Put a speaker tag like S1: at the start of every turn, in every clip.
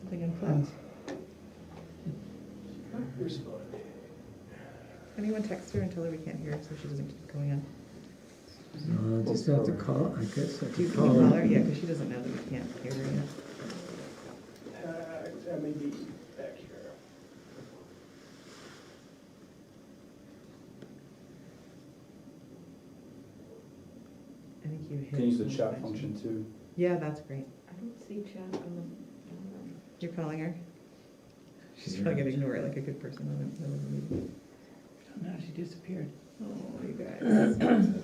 S1: something in front. Anyone text her and tell her we can't hear her, so she doesn't keep going on?
S2: I'll just have to call, I guess I
S1: Do you can
S2: could
S3: Um,
S2: call
S1: you call her?
S2: her.
S1: Yeah, because she doesn't know that we can't hear her yet.
S4: Uh, That may be back here.
S1: Oh, I think you hit.
S3: Can use the
S1: on
S3: chat function too.
S1: Yeah, that's great.
S5: I don't see chat on the.
S1: You're calling her? She's
S2: Yeah.
S1: probably gonna ignore it like a good person on the, on the meeting.
S6: No, she disappeared.
S1: Oh, you guys.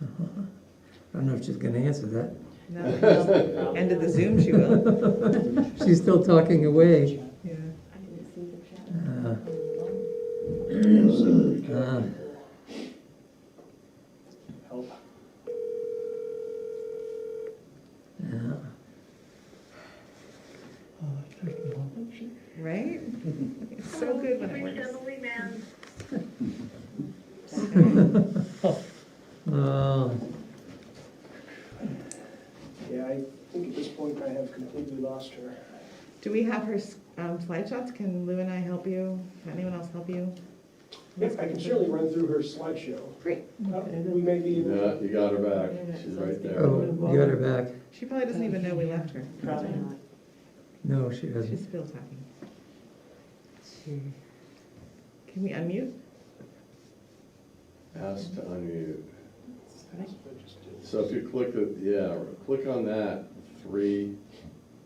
S2: I don't know if she's gonna answer that.
S1: No, End of the Zoom, she will.
S2: She's still talking away.
S1: Yeah.
S5: I didn't see the chat.
S2: Uh, uh,
S4: Help.
S2: yeah.
S6: Oh, I took them all.
S1: Right? It's so good when it works.
S2: Oh,
S4: Yeah, I think at this point I have completely lost her.
S1: Do we have her s- um, slideshots? Can Lou and I help you? Can anyone else help you?
S4: I can surely run through her slideshow.
S1: Great.
S4: Uh, We may be able
S7: Yeah, you got her back. She's right there.
S2: oh, you got her back.
S1: She probably doesn't even know we left her.
S5: Probably not.
S2: No, she doesn't.
S1: She's still talking. Can we unmute?
S7: Ask to unmute.
S4: to just do-
S7: So if you click, the yeah, click on that, three,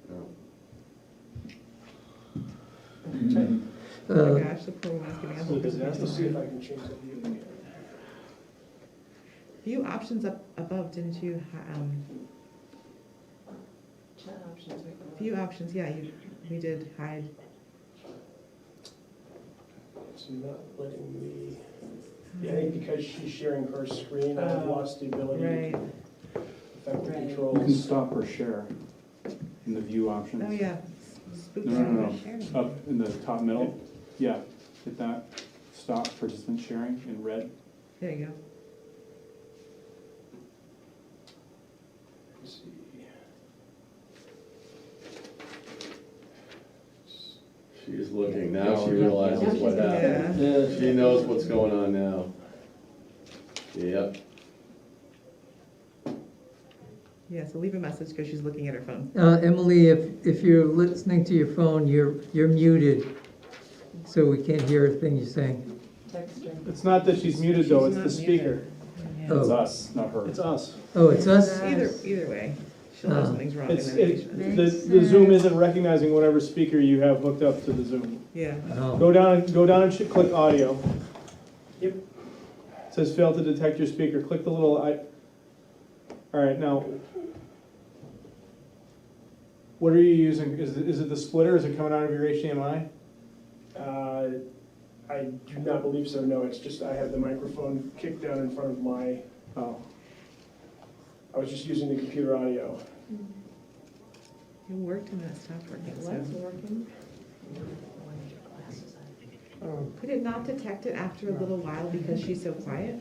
S7: no,
S3: Mm-hmm.
S1: Oh my
S2: Uh,
S1: gosh, the poor woman's giving up.
S4: So Let's see if
S1: hope.
S4: I can change the view again.
S1: View options up above, didn't you, ha- um,
S5: Chat options right below.
S1: view options, yeah, you, we did hide.
S4: It's not letting me, yeah, I think because she's sharing her screen, I've
S1: Oh,
S4: lost the ability
S1: Right, Oh,
S4: to affect the
S3: You
S5: Right.
S3: can
S4: controls.
S3: stop or share in the view options.
S1: oh yeah. Spooks
S3: No, no, no,
S1: are
S3: no.
S1: sharing.
S3: Up in the top middle, yeah, hit that, stop participant sharing in red.
S1: There you go.
S4: Let's see.
S7: she's looking. Now she realizes what happened.
S1: Yeah,
S7: She knows what's going on now. Yep,
S1: yeah, so leave a message because she's looking at her phone.
S2: uh, Emily, if, if you're listening to your phone, you're, you're muted. So we can't hear a thing you're saying.
S5: Texting.
S3: It's not that she's muted though,
S1: She's
S3: it's the
S1: not muted.
S3: speaker. It's
S2: Oh,
S3: us, not her.
S4: It's us.
S2: oh, it's us?
S1: Either, either way, she'll know
S2: Uh,
S1: something's wrong and
S3: It's,
S1: then
S3: it,
S1: she
S3: the, the Zoom isn't recognizing whatever speaker you have hooked up to the Zoom.
S1: Yeah,
S2: Oh,
S3: Go down, go down and sh- click audio.
S4: Yep.
S3: It Says fail to detect your speaker, click the little I. All right, now. What are you using? Is, it- is it the splitter? Is it coming out of your HDMI?
S4: Uh, I do not believe so, no, it's just I have the microphone kicked down in front of my,
S3: Oh,
S4: I was just using the computer audio.
S1: it worked and then it stopped working,
S5: What's
S1: so.
S5: working? Why did your glasses on?
S6: Oh,
S1: Could it not detect it after a little while because she's so quiet?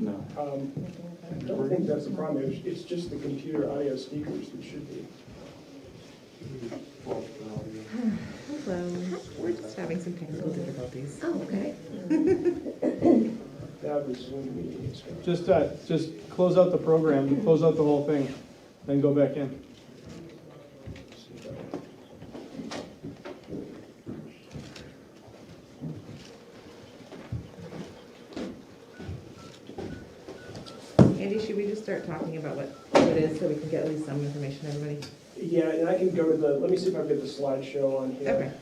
S3: no.
S4: Um, I don't think that's the problem, it's, it's just the computer audio speakers that should be.
S1: Hello, we're just having some technical difficulties.
S5: Oh, okay.
S4: That was Zoom meeting, it's gonna-
S3: Just, uh, just close out the program, close out the whole thing, then go back in.
S4: see if I-
S1: Andy, should we just start talking about what what it is so we can get at least some information, to everybody?
S4: Yeah, and I can go to the, let me see if I can get the slideshow on here.
S1: Okay.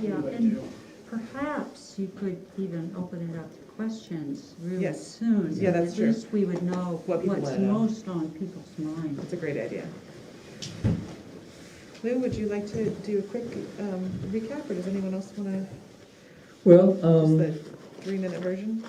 S8: Yeah,
S4: What do I
S8: and
S4: do?
S8: perhaps you could even open it up to questions really
S1: Yes.
S8: soon.
S1: Yeah, that's true.
S8: At least we would know
S1: What people
S8: what's
S1: wanna know.
S8: most on people's minds.
S1: That's a great idea. Lou, would you like to do a quick um, recap, or does anyone else want to,
S2: well,
S1: just
S2: um.
S1: the three-minute version?